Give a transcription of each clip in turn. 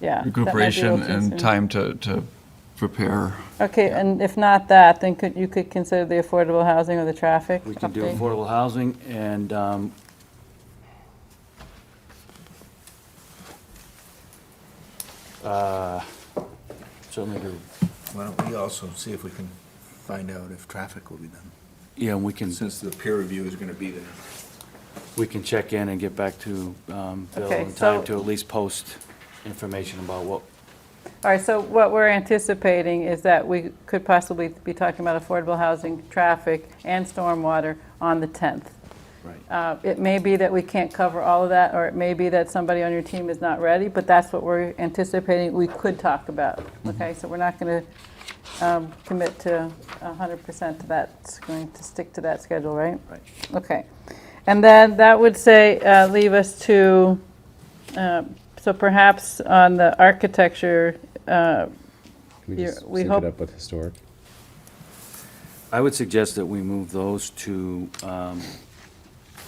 yeah. that might be recuperation real and soon. time to, to prepare. Okay, and if not that, then could, you could consider the affordable housing or the traffic We can do update? affordable housing and, um, uh, certainly do, Why don't we also see if we can find out if traffic will be done? yeah, and we can, Since the peer review is going to be there. we can check in and get back to, um, Bill Okay, in time so- to at least post information about what, All right, so what we're anticipating is that we could possibly be talking about affordable housing, traffic, and stormwater on the 10th. right. Uh, It may be that we can't cover all of that, or it may be that somebody on your team is not ready, but that's what we're anticipating we could talk about. Mm-hmm. Okay, so we're not going to commit to 100% to that, it's going to stick to that schedule, right? Right. Okay. And then that would say, uh, leave us to, uh, so perhaps on the architecture, uh, Can we Yeah, just we sync hope- it up with historic? I would suggest that we move those to, um,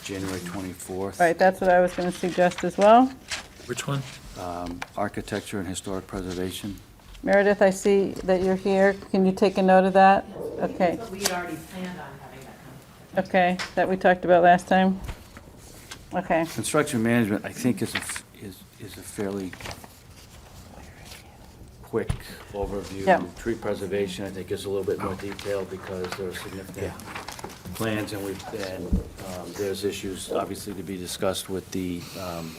January twenty-fourth. right, that's what I was going to suggest as well. Which one? Um, Architecture and historic preservation. Meredith, I see that you're here. Can you take a note of that? Okay, But we had already planned on having that okay, conversation. that we talked about last time? Okay, Construction management, I think, is, a f- is is a fairly quick overview. Yeah. Tree preservation, I think, is a little bit more detailed because there are significant plans and we've, and um, there's issues, obviously, to be discussed with the um,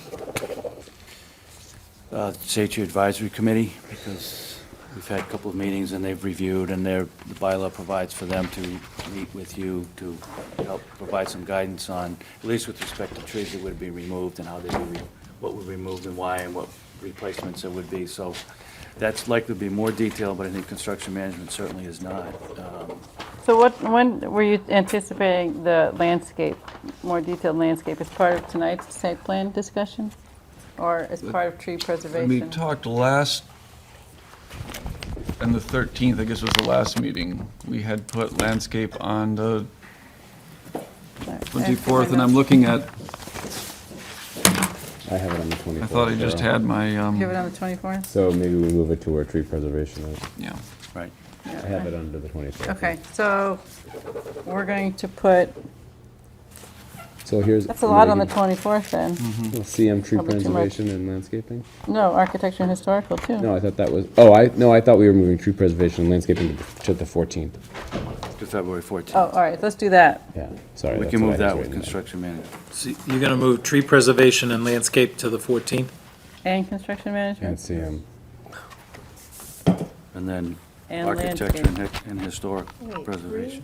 uh, Safety Advisory Committee because we've had a couple of meetings and they've reviewed and their, the bylaw provides for them to meet with you to help provide some guidance on, at least with respect to trees that would be removed and how they would, be- what would be removed and why and what replacements there would be. So that's likely to be more detailed, but I think construction management certainly is not. Um, so what, when were you anticipating the landscape, more detailed landscape, as part of tonight's site plan discussion? Or as part of tree When we preservation? talked last, and the 13th, I guess was the last meeting, we had put landscape on the Actually, 24th, and no. I'm looking at, I have it on the 24th. I thought I just Carol. had my, um, Do you have it on the 24th? So maybe we move it to our tree preservation. right? yeah. Right. I have it under the 24th. Okay, so we're going to put, So here's. that's a lot on the 24th then. Mm-hmm. CM um, tree Probably too much. preservation and landscaping? No, architecture and historical too. No, I thought that was, oh, I, no, I thought we were moving tree preservation and landscaping to the- to the 14th. To February Oh, 14th. all right, let's do that. Yeah, sorry. We that's can what I move had that with written down. construction management. So You're going to move tree preservation and landscape to the 14th? And construction And management? CM. And then And architecture and hi- and historic Wait, preservation.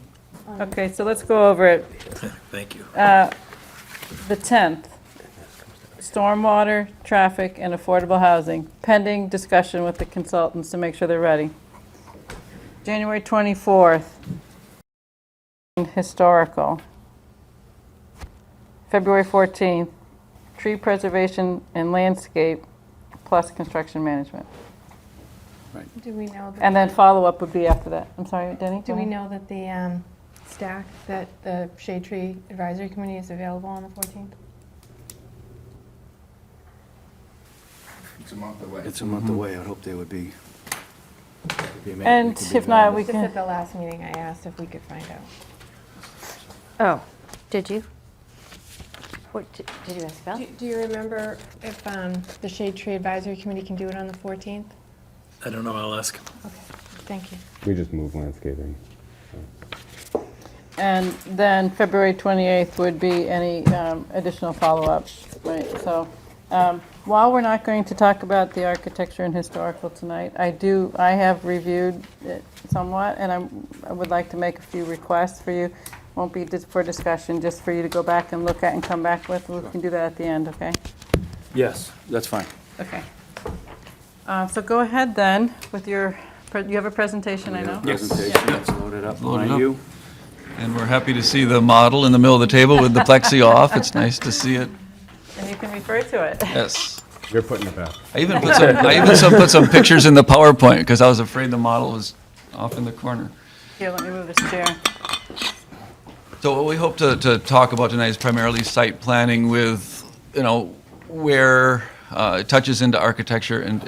Okay, so let's go over it. Thank you. Uh, The 10th, stormwater, traffic, and affordable housing, pending discussion with the consultants to make sure they're ready. January 24th, historical. February 14th, tree preservation and landscape, plus construction management. Do we know, that- And then follow-up would be after that. I'm sorry, Denny? go do we ahead. know that the um, stack, that the Shade Tree Advisory Committee is available on the 14th? It's a month away. It's a month away, I'd hope they would be. be ama- And it could be if not, available. We Just can- at the last meeting, I asked if we could find out. Oh, did you? What, did did you ask about? Do- Do you remember if um, the Shade Tree Advisory Committee can do it on the 14th? I don't know, I'll ask. Okay, thank you. We just moved landscaping. And then February 28th would be any um, additional follow-ups, right? So um, while we're not going to talk about the architecture and historical tonight, I do, I have reviewed it somewhat, and I'm- I would like to make a few requests for you. Won't be dis- for discussion, just for you to go back and look at and come back with. We can do that at the end, okay? Yes, that's fine. Okay. Uh, So go ahead then with your, pre- you have a presentation, I know? Presentation, it's loaded up Loaded by up. you. And we're happy to see the model in the middle of the table with the plexi off. It's nice to see it. And you can refer to it. Yes. You're putting it back. I even put some, I even some, put some pictures in the PowerPoint because I was afraid the model was off in the corner. Here, let me move this chair. So what we hope to, to talk about tonight is primarily site planning with, you know, where uh, it touches into architecture and,